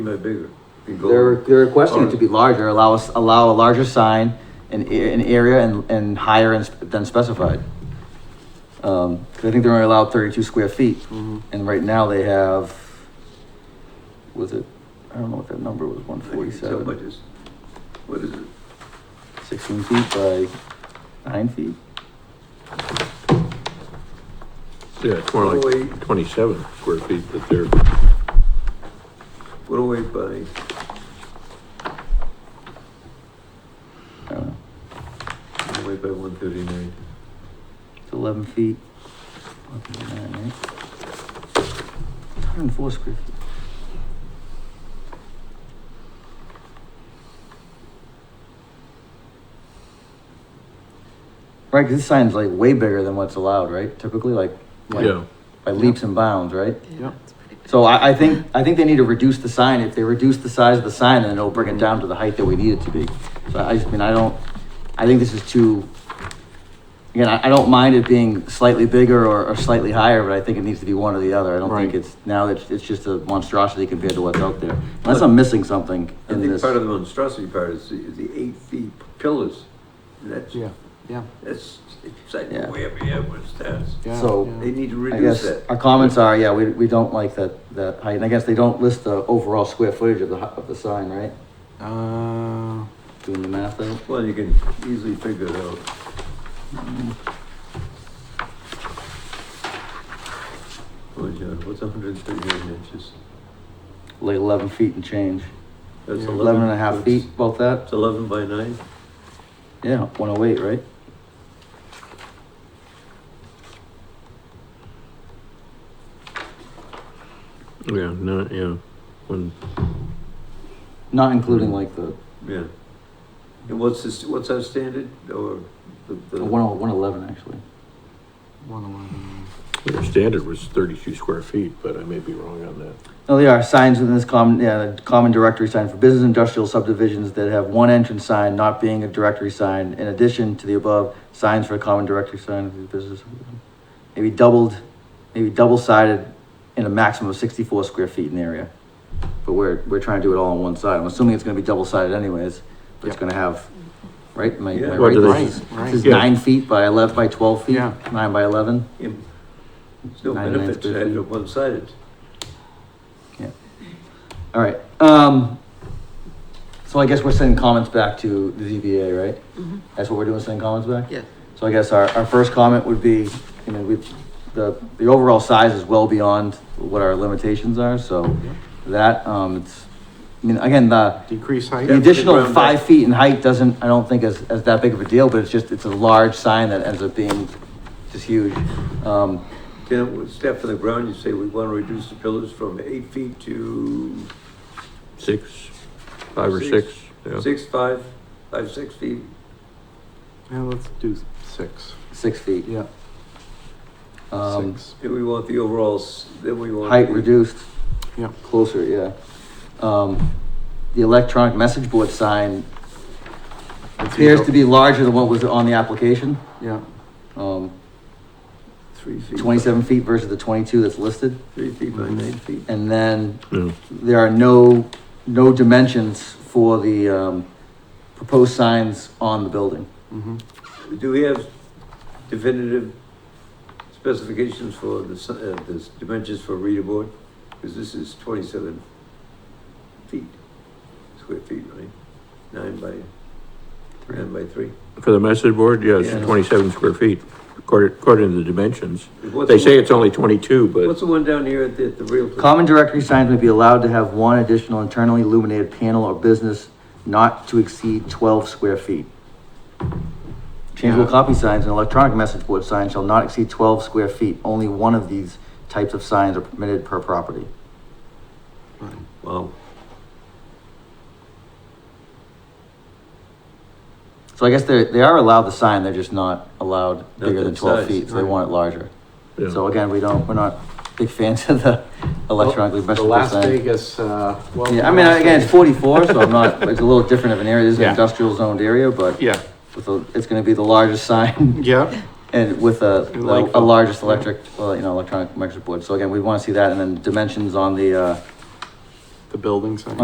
No bigger. Be They're, golden. they're requesting it to be larger, allow us, allow a larger sign in, a- an area and, and higher ins- than specified. Um, 'cause I think they're only allowed thirty-two square feet, Mm-hmm. and right now they have, was it, I don't know what that number was, one So much forty-seven, is, what is it? sixteen feet by nine feet? Yeah, it's more like 108. twenty-seven square feet that they're, What away by, I don't know, what away by one thirty-nine? it's eleven feet. Hundred and four square feet. Right, 'cause this sign's like way bigger than what's allowed, right? Typically, like, like yeah, by leaps and bounds, right? Yeah. So I, I think, I think they need to reduce the sign. If they reduce the size of the sign, then it'll bring it down to the height that we need it to be. So I just mean, I don't, I think this is too, again, I, I don't mind it being slightly bigger or, or slightly higher, but I think it needs to be one or the other. I don't think Right. it's, now it's, it's just a monstrosity compared to what's out there. Unless I'm missing something I in think this. part of the monstrosity part is the, is the eight feet pillars. And that's, Yeah, yeah, that's, it's like Yeah. way over here, what's that? yeah. So- yeah. They need to I reduce guess that. our comments are, yeah, we, we don't like that, that height. And I guess they don't list the overall square footage of the, hu- of the sign, right? Uh, Doing the math out. Well, you can easily figure it out. Mm-hmm. Oh, John, what's hundred and thirty-nine inches? like eleven feet and change. That's Yeah. Eleven and a half that's- feet, about that? It's eleven by nine? Yeah, one oh eight, right? yeah, no, yeah. When, Not including like the, Yeah. And what's this, what's our standard or the? the the- one oh, one eleven actually. one eleven. their standard was thirty-two square feet, but I may be wrong on that. No, they are Oh, signs within this common, yeah, the common directory sign for business industrial subdivisions that have one entrance sign not being a directory sign. In addition to the above, signs for a common directory sign of the business. subdivision. Maybe doubled, maybe double sided in a maximum of sixty-four square feet in the area. But we're, we're trying to do it all on one side. I'm assuming it's gonna be double sided anyways, but it's Yep. gonna have, right? Am I- am I Yeah. What right? do they- This is- Right, This is right. nine feet by eleven, by twelve feet, Yeah. nine by eleven. Im- There's no Nine and a half benefit to square having feet. it one-sided. All right, um, so I guess we're sending comments back to the ZBA, right? That's what we're doing, sending comments back? Yeah. So I guess our, our first comment would be, you know, we, the, the overall size is well beyond what our limitations are, so that, um, it's, I mean, again, the, Decrease height. the additional round up. five feet in height doesn't, I don't think is, is that big of a deal, but it's just, it's a large sign that ends up being just huge. Um, Then with step from the ground, you say we want to reduce the pillars from eight feet to Six, five or Six. six, yeah. six, five, five, six feet. Yeah, let's do six. six feet, Yeah, um, six. Then we want the overalls, then we want. height the- reduced. Yeah. Closer, yeah. Um, the electronic message board sign Let's appears go- to be larger than what was on the application. Yeah, Um, Three feet. twenty-seven feet versus the twenty-two that's listed. Three feet by nine feet. And then Yeah. there are no, no dimensions for the, um, proposed signs on the building. mm-hmm. Do we have definitive specifications for the, s- uh, the s- dimensions for reader board? Because this is twenty-seven feet, square feet, right? Nine by, nine by three. For the message board, yeah, Yeah. it's twenty-seven square feet, according, according to the dimensions. What's They the say one- it's only twenty-two, but What's the one down here at the, at the real place? Common directory signs may be allowed to have one additional internally illuminated panel or business not to exceed twelve square feet. Changeable Yeah. copy signs and electronic message board signs shall not exceed twelve square feet. Only one of these types of signs are permitted per property. Fine. Wow, So I guess they, they are allowed the sign, they're just not allowed bigger than that twelve size, feet, so they right. want it larger. yeah. So again, we don't, we're not big fans of the electronically The message board Las sign. Vegas, uh. well, Yeah, I mean, Las again, it's Vegas- forty-four, so I'm not, it's a little different of an area, it is an Yeah. industrial zoned area, but. Yeah, with a, it's going to be the largest sign yeah, and with a, And like like- a largest electric, well, you know, electronic micro board. So again, we want to see that and then dimensions on the, uh, the building sign.